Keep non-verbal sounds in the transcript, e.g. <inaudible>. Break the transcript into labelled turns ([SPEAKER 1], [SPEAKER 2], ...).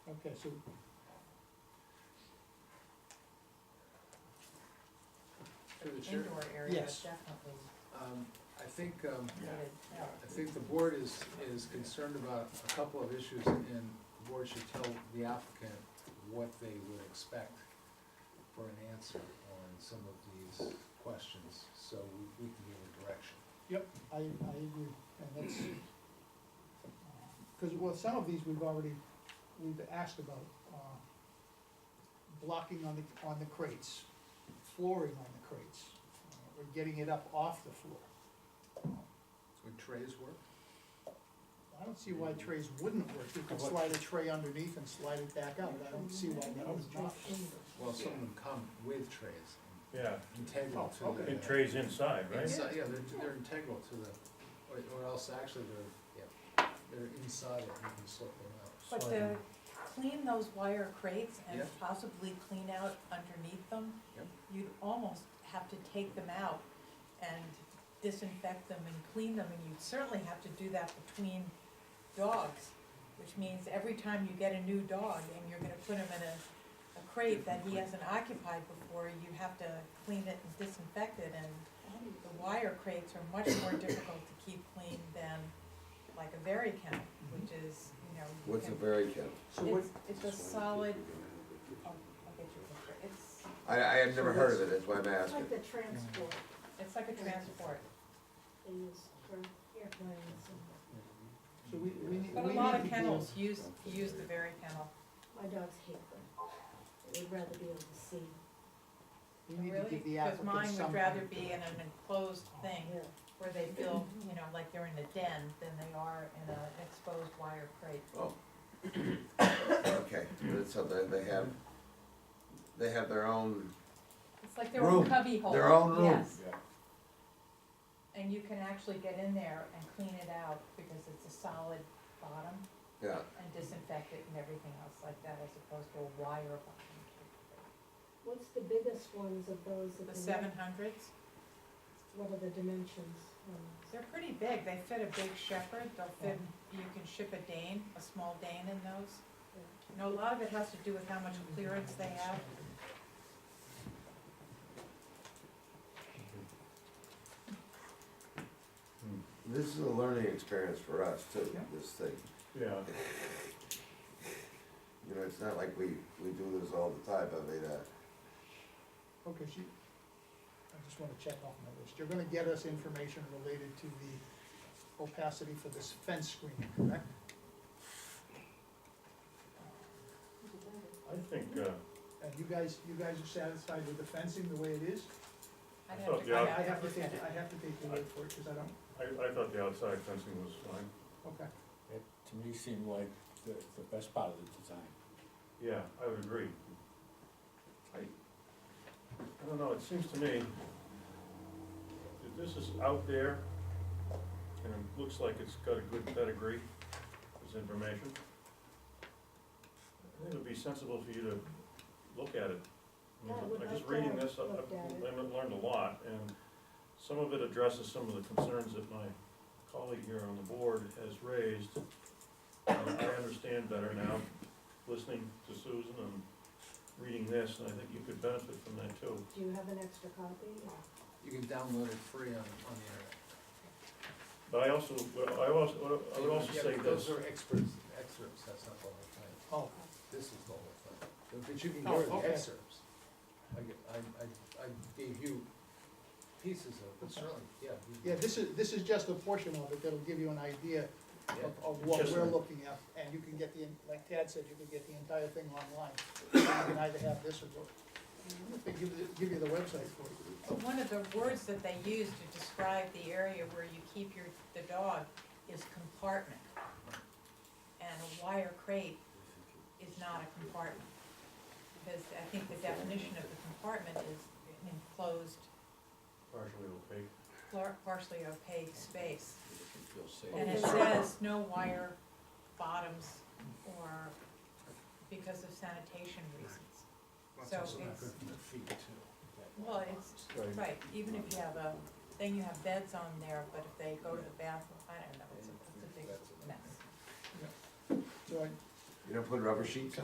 [SPEAKER 1] Okay, so.
[SPEAKER 2] Through the chair,
[SPEAKER 3] Indoor area
[SPEAKER 1] Yes.
[SPEAKER 3] is definitely
[SPEAKER 2] um, I think, um,
[SPEAKER 3] needed, yeah.
[SPEAKER 2] I think the board is, is concerned about a couple of issues, and the board should tell the applicant what they would expect for an answer on some of these questions, so we, we can give a direction.
[SPEAKER 1] Yep. I, I agree, and that's, because, well, some of these we've already, we've asked about, uh, blocking on the, on the crates, flooring on the crates, uh, or getting it up off the floor.
[SPEAKER 2] Would trays work?
[SPEAKER 1] I don't see why trays wouldn't work, you could
[SPEAKER 4] How about-
[SPEAKER 1] slide a tray underneath and slide it back up, I don't see why that would not.
[SPEAKER 2] Well, some of them come with trays,
[SPEAKER 4] Yeah,
[SPEAKER 2] integral to
[SPEAKER 1] Oh, okay.
[SPEAKER 2] the.
[SPEAKER 4] it trays inside, right?
[SPEAKER 2] Inside, yeah, they're, they're integral to the, or, or else actually they're, yeah, they're inside it, you can slip them out.
[SPEAKER 3] But to clean those wire crates and
[SPEAKER 2] Yeah.
[SPEAKER 3] possibly clean out underneath them,
[SPEAKER 2] Yep.
[SPEAKER 3] you'd almost have to take them out and disinfect them and clean them, and you'd certainly have to do that between dogs, which means every time you get a new dog and you're gonna put him in a, a crate that he hasn't occupied before, you have to clean it and disinfect it, and the wire crates are much more difficult to keep clean than like a very count, which is, you know. you
[SPEAKER 5] What's a
[SPEAKER 3] can-
[SPEAKER 5] very count?
[SPEAKER 1] So what,
[SPEAKER 3] It's, it's a solid, oh, I'll get you a picture, it's,
[SPEAKER 5] I, I have never heard of it, that's why I'm
[SPEAKER 6] It's
[SPEAKER 5] asking.
[SPEAKER 6] like the transport
[SPEAKER 3] it's like a transport,
[SPEAKER 6] they use for airplanes and
[SPEAKER 1] so we, we need,
[SPEAKER 3] but
[SPEAKER 1] we
[SPEAKER 3] a
[SPEAKER 1] need
[SPEAKER 3] lot
[SPEAKER 1] to
[SPEAKER 3] of
[SPEAKER 1] do-
[SPEAKER 3] kennels use, use the very kennel.
[SPEAKER 6] my dogs hate them. They would rather be able to see.
[SPEAKER 1] We need to
[SPEAKER 3] Really,
[SPEAKER 1] give the
[SPEAKER 3] because
[SPEAKER 1] applicant
[SPEAKER 3] mine
[SPEAKER 1] some.
[SPEAKER 3] would rather
[SPEAKER 1] kind of
[SPEAKER 3] be in an enclosed thing
[SPEAKER 6] Yeah.
[SPEAKER 3] where they feel, you know, like they're in a den than they are in an exposed wire crate.
[SPEAKER 5] Oh. <coughs> Okay, so they, they have, they have their own,
[SPEAKER 3] It's like their own
[SPEAKER 5] Room,
[SPEAKER 3] cubby hole.
[SPEAKER 5] their own room.
[SPEAKER 3] Yes,
[SPEAKER 4] Yeah.
[SPEAKER 3] and you can actually get in there and clean it out because it's a solid bottom
[SPEAKER 5] yeah,
[SPEAKER 3] and disinfect it and everything else like that as opposed to a wire bottom.
[SPEAKER 6] What's the biggest ones of those? that
[SPEAKER 3] The
[SPEAKER 6] they
[SPEAKER 3] seven
[SPEAKER 6] make?
[SPEAKER 3] hundreds?
[SPEAKER 6] What are the dimensions? Um,
[SPEAKER 3] They're pretty big, they fit a big shepherd, they'll fit, you can ship a Dane, a small Dane in those. You know, a lot of it has to do with how much clearance they have.
[SPEAKER 5] this is a learning experience for us too,
[SPEAKER 1] Yeah.
[SPEAKER 5] this thing.
[SPEAKER 4] Yeah,
[SPEAKER 5] You know, it's not like we, we do this all the time, I mean, uh,
[SPEAKER 1] Okay, she, I just wanna check off my list, you're gonna get us information related to the opacity for this fence screen, correct?
[SPEAKER 4] I think, uh,
[SPEAKER 1] And you guys, you guys are satisfied with the fencing the way it is?
[SPEAKER 3] I'd
[SPEAKER 4] So,
[SPEAKER 3] have to
[SPEAKER 4] yeah.
[SPEAKER 3] go
[SPEAKER 1] I
[SPEAKER 3] back
[SPEAKER 1] I have
[SPEAKER 3] and
[SPEAKER 1] to
[SPEAKER 3] look
[SPEAKER 1] take,
[SPEAKER 3] at it.
[SPEAKER 1] I have to take your word for it, cause I don't,
[SPEAKER 4] I, I thought the outside fencing was fine,
[SPEAKER 1] okay,
[SPEAKER 7] It, to me, seemed like the, the best part of the design.
[SPEAKER 4] yeah, I would agree. I, I don't know, it seems to me that this is out there, and it looks like it's got a good pedigree, this information. I think it would be sensible for you to look at it. I mean,
[SPEAKER 6] Yeah, I would
[SPEAKER 4] Like just
[SPEAKER 6] like to
[SPEAKER 4] reading
[SPEAKER 6] have
[SPEAKER 4] this, I've,
[SPEAKER 6] looked at it.
[SPEAKER 4] I've learned a lot, and some of it addresses some of the concerns that my colleague here on the board has raised. And I understand better now, listening to Susan and reading this, and I think you could benefit from that too.
[SPEAKER 6] Do you have an extra copy?
[SPEAKER 2] You can download it free on, on the internet.
[SPEAKER 4] But I also, I also, I would also
[SPEAKER 2] Yeah,
[SPEAKER 4] say
[SPEAKER 2] but
[SPEAKER 4] this,
[SPEAKER 2] Those are experts, excerpts, that's not the whole
[SPEAKER 1] oh,
[SPEAKER 2] thing, this is the whole thing, but you can
[SPEAKER 1] Oh,
[SPEAKER 2] go to the
[SPEAKER 1] okay.
[SPEAKER 2] excerpts. I, g- I- I- I gave you pieces of, it, but certainly, yeah. you-
[SPEAKER 1] yeah, this is, this is just a portion of it that'll give you an idea
[SPEAKER 2] yeah.
[SPEAKER 1] of, of what
[SPEAKER 4] Just-
[SPEAKER 1] we're looking at, and you can get the, like Tad said, you can get the entire thing online. You can either have this or go, they give, you- give you the website for it.
[SPEAKER 3] But One of the words that they use to describe the area where you keep your, the dog is compartment. And a wire crate is not a compartment. Because I think the definition of the compartment is an enclosed,
[SPEAKER 4] partially opaque,
[SPEAKER 3] par- partially opaque space.
[SPEAKER 7] You'll see.
[SPEAKER 3] And it says no wire bottoms or because of sanitation reasons. So it's,
[SPEAKER 7] The feet too.
[SPEAKER 3] well, it's,
[SPEAKER 4] right?
[SPEAKER 3] right, even if you have a, then you have beds on there, but if they go to the bathroom, I don't know, it's a, it's a big mess.
[SPEAKER 1] So I,
[SPEAKER 5] you don't put rubber sheets